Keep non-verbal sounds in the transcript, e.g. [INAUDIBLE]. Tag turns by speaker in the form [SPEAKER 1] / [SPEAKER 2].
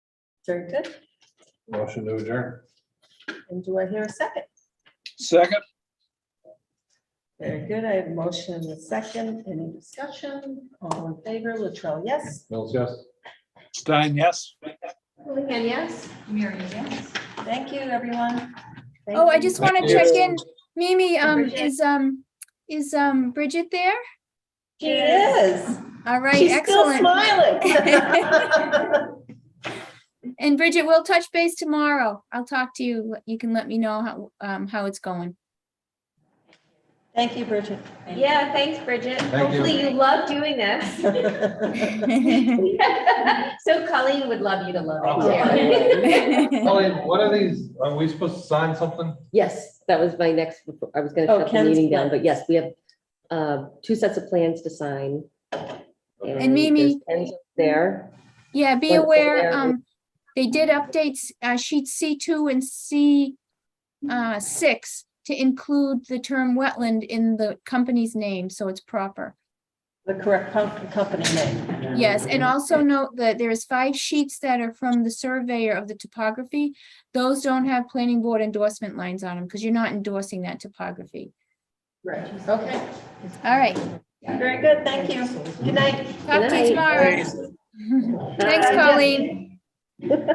[SPEAKER 1] Very good.
[SPEAKER 2] Motion to adjourn.
[SPEAKER 1] And do I hear a second?
[SPEAKER 3] Second,
[SPEAKER 1] Very good. I have a motion in the second. Any discussion? All in favor, Latrell, yes?
[SPEAKER 2] Mills, yes.
[SPEAKER 3] Stein, yes.
[SPEAKER 1] Houlihan, yes?
[SPEAKER 4] Miriam, yes.
[SPEAKER 1] Thank you, everyone. Thank
[SPEAKER 5] Oh, I
[SPEAKER 1] you.
[SPEAKER 5] just
[SPEAKER 2] Thank
[SPEAKER 5] want to
[SPEAKER 2] you.
[SPEAKER 5] check in. Mimi, um,
[SPEAKER 1] Bridget.
[SPEAKER 5] is, um, is, um, Bridget there?
[SPEAKER 1] She is.
[SPEAKER 5] All right,
[SPEAKER 1] She's still
[SPEAKER 5] excellent. [LAUGHS]
[SPEAKER 1] smiling.
[SPEAKER 5] And Bridget, we'll touch base tomorrow. I'll talk to you. You can let me know how, um, how it's going. [LAUGHS]
[SPEAKER 1] Thank you, Bridget. [LAUGHS]
[SPEAKER 6] Yeah, thanks, Bridget.
[SPEAKER 2] you.
[SPEAKER 6] Hopefully you love doing this. [LAUGHS] So Colleen would love you to love it too.
[SPEAKER 2] Colleen, what are these? Are we supposed to sign something?
[SPEAKER 7] Yes, that was my next, I was gonna
[SPEAKER 1] Oh,
[SPEAKER 7] shut the
[SPEAKER 1] Ken's
[SPEAKER 7] meeting down,
[SPEAKER 1] plan.
[SPEAKER 7] but yes, we have uh, two sets of plans to sign.
[SPEAKER 5] And Mimi-
[SPEAKER 7] there's Ken's There,
[SPEAKER 5] Yeah, be
[SPEAKER 7] Wonderful.
[SPEAKER 5] aware, um, they did updates, uh, sheet C two and C uh, six to include the term wetland in the company's name, so it's proper.
[SPEAKER 1] The correct com- company name.
[SPEAKER 5] Yes, and also note that there is five sheets that are from the surveyor of the topography. Those don't have planning board endorsement lines on them because you're not endorsing that topography.
[SPEAKER 1] Right. Okay,
[SPEAKER 5] All right,
[SPEAKER 1] [LAUGHS] very good. Thank you. Good night.
[SPEAKER 5] talk to you
[SPEAKER 7] Good
[SPEAKER 6] Uh,
[SPEAKER 5] tomorrow. Thanks,
[SPEAKER 7] Bye.
[SPEAKER 5] Colleen.